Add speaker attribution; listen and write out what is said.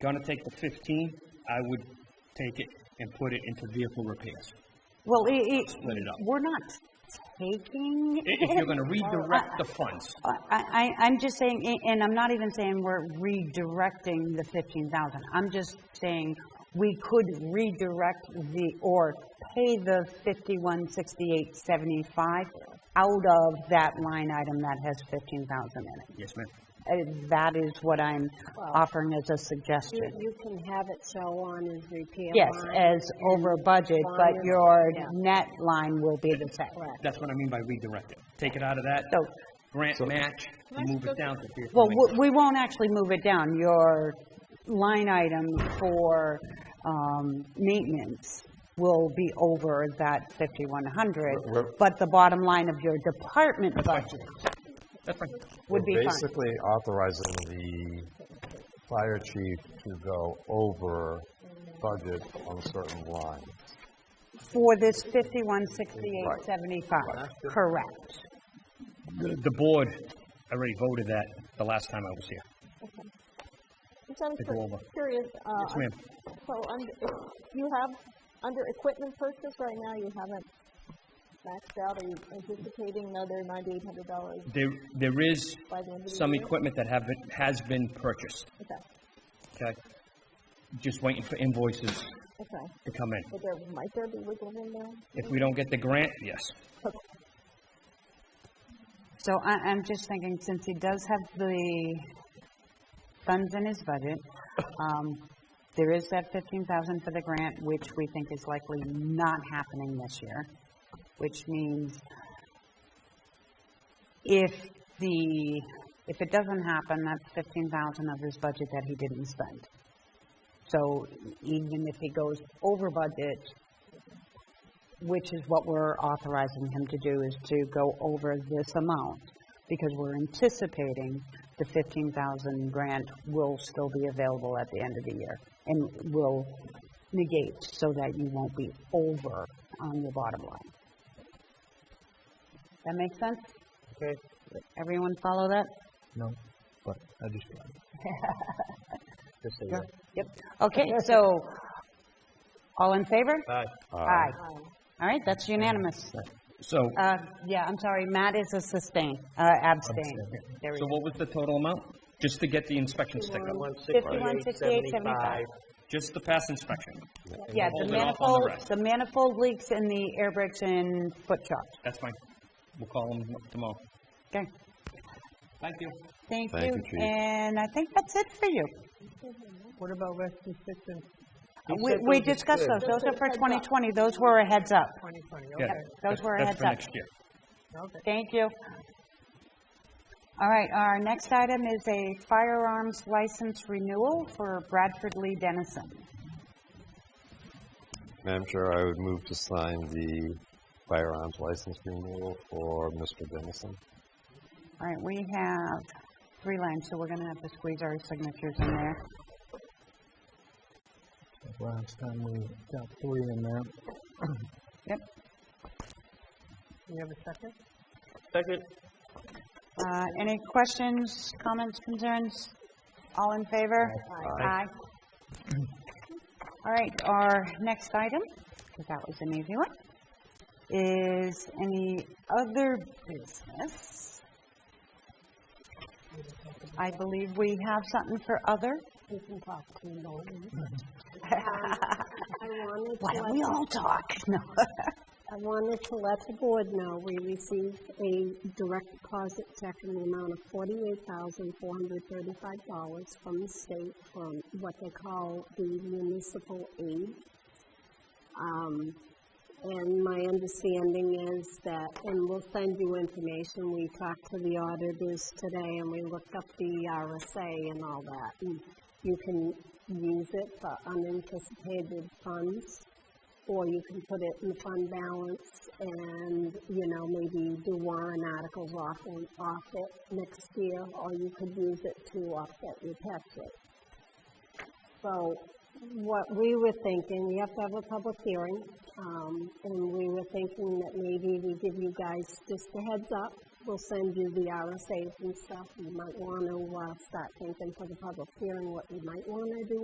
Speaker 1: going to take the 15, I would take it and put it into vehicle repairs.
Speaker 2: Well, it, it,
Speaker 1: Split it up.
Speaker 2: we're not taking.
Speaker 1: I- If you're going to
Speaker 2: it.
Speaker 1: redirect the funds,
Speaker 2: I, I, I'm just saying, a- and I'm not even saying we're redirecting the fifteen thousand. I'm just saying we could redirect the, or pay the fifty-one, sixty-eight, seventy-five out of that line item that has fifteen thousand in it.
Speaker 1: yes, ma'am.
Speaker 2: Uh, That is what I'm offering as a suggestion.
Speaker 3: You you can have it so on as repair.
Speaker 2: Yes, uh,
Speaker 3: line
Speaker 2: as over budget, but
Speaker 3: line.
Speaker 2: your
Speaker 3: Yeah.
Speaker 2: net line will be the same.
Speaker 3: Correct.
Speaker 1: That's what I mean by redirect it. Take it out of that
Speaker 2: So
Speaker 1: grant match, and move it down to vehicle
Speaker 2: Well,
Speaker 1: maintenance.
Speaker 2: w- we won't actually move it down. Your line item for um, maintenance will be over that 5,100,
Speaker 4: We're-
Speaker 2: but the bottom line of your department budget
Speaker 1: That's fine.
Speaker 2: would be
Speaker 4: We're
Speaker 2: fine.
Speaker 4: basically authorizing the fire chief to go over budget on certain line.
Speaker 2: For this 5,168.75, correct.
Speaker 1: The the board already voted that the last time I was here.
Speaker 5: Just out of
Speaker 1: Take a
Speaker 5: cur-
Speaker 1: roll, Bob.
Speaker 5: curious, uh,
Speaker 1: Yes, ma'am.
Speaker 5: un- so under, you have, under equipment purchase right now, you haven't maxed out, are you anticipating another ninety-eight hundred dollars
Speaker 1: There, there is
Speaker 5: by the end of the year?
Speaker 1: some equipment that have been, has been purchased,
Speaker 5: Okay,
Speaker 1: okay? Just waiting for invoices to
Speaker 5: okay,
Speaker 1: come in.
Speaker 5: but there, might there be wiggle room there?
Speaker 1: If we don't get the grant, yes.
Speaker 2: So I, I'm just thinking, since he does have the funds in his budget, um, there is that fifteen thousand for the grant, which we think is likely not happening this year, which means if the, if it doesn't happen, that's fifteen thousand of his budget that he didn't spend. So even if he goes over budget, which is what we're authorizing him to do, is to go over this amount, because we're anticipating the fifteen thousand grant will still be available at the end of the year, and will negate so that you won't be over on your bottom line. That make sense?
Speaker 4: Okay.
Speaker 2: Everyone follow that?
Speaker 4: No, but I just. Just
Speaker 2: Yeah. Yep. Okay, so, all in favor? Aye. All right, that's unanimous.
Speaker 1: So,
Speaker 2: Uh, yeah, I'm sorry, Matt is a sustain, uh, abstain. There we
Speaker 1: so
Speaker 2: go.
Speaker 1: what was the total amount? Just to get the inspection sticker,
Speaker 2: Fifty-one, sixty-eight, seventy-five.
Speaker 1: just to pass inspection.
Speaker 2: Yeah,
Speaker 1: Hold
Speaker 2: the
Speaker 1: it off on the
Speaker 2: manifold,
Speaker 1: rest.
Speaker 2: the manifold leaks in the air brakes and foot shocks.
Speaker 1: That's fine. We'll call them tomorrow.
Speaker 2: Okay,
Speaker 1: Thank you.
Speaker 2: thank
Speaker 4: Thank
Speaker 2: you.
Speaker 4: you, Chief.
Speaker 2: And I think that's it for you.
Speaker 6: What about rescue assistance
Speaker 2: Uh, We, we discussed those, those are for 2020, those were a heads up.
Speaker 6: twenty twenty?
Speaker 1: Yeah,
Speaker 6: Okay,
Speaker 2: Those were a
Speaker 1: that's
Speaker 2: heads
Speaker 1: for
Speaker 2: up.
Speaker 1: next year.
Speaker 6: okay.
Speaker 2: Thank you. All right, our next item is a firearms license renewal for Bradford Lee Dennison.
Speaker 4: Uh, Madam Chair, I would move to sign the firearms license renewal for Mr. Dennison.
Speaker 2: All right, we have three lines, so we're gonna have to squeeze our signatures in there.
Speaker 6: Last time we got three in there.
Speaker 2: Yep.
Speaker 6: You have a second?
Speaker 2: Uh, Any questions, comments, concerns? All in favor? Aye. All right, our next item, because that was an easy one, is any other business? I believe we have something for other.
Speaker 3: You can talk to me later. I wanted to
Speaker 2: Why don't we
Speaker 3: let-
Speaker 2: all talk? No.
Speaker 3: I wanted to let the board know, we received a direct deposit check in the amount of forty-eight thousand, four hundred thirty-five dollars from the state from what they call the municipal aid. Um, and my understanding is that, and we'll send you information, we talked to the auditors today and we looked up the E RSA and all that. And you can use it for unanticipated funds or you can put it in the fund balance and, you know, maybe do warrant articles off and off it next year, or you could use it to offset your tax rate. So what we were thinking, we have to have a public hearing, um, and we were thinking that maybe we give you guys just a heads up. We'll send you the RSAs and stuff. You might want to, uh, start thinking for the public hearing what you might want to do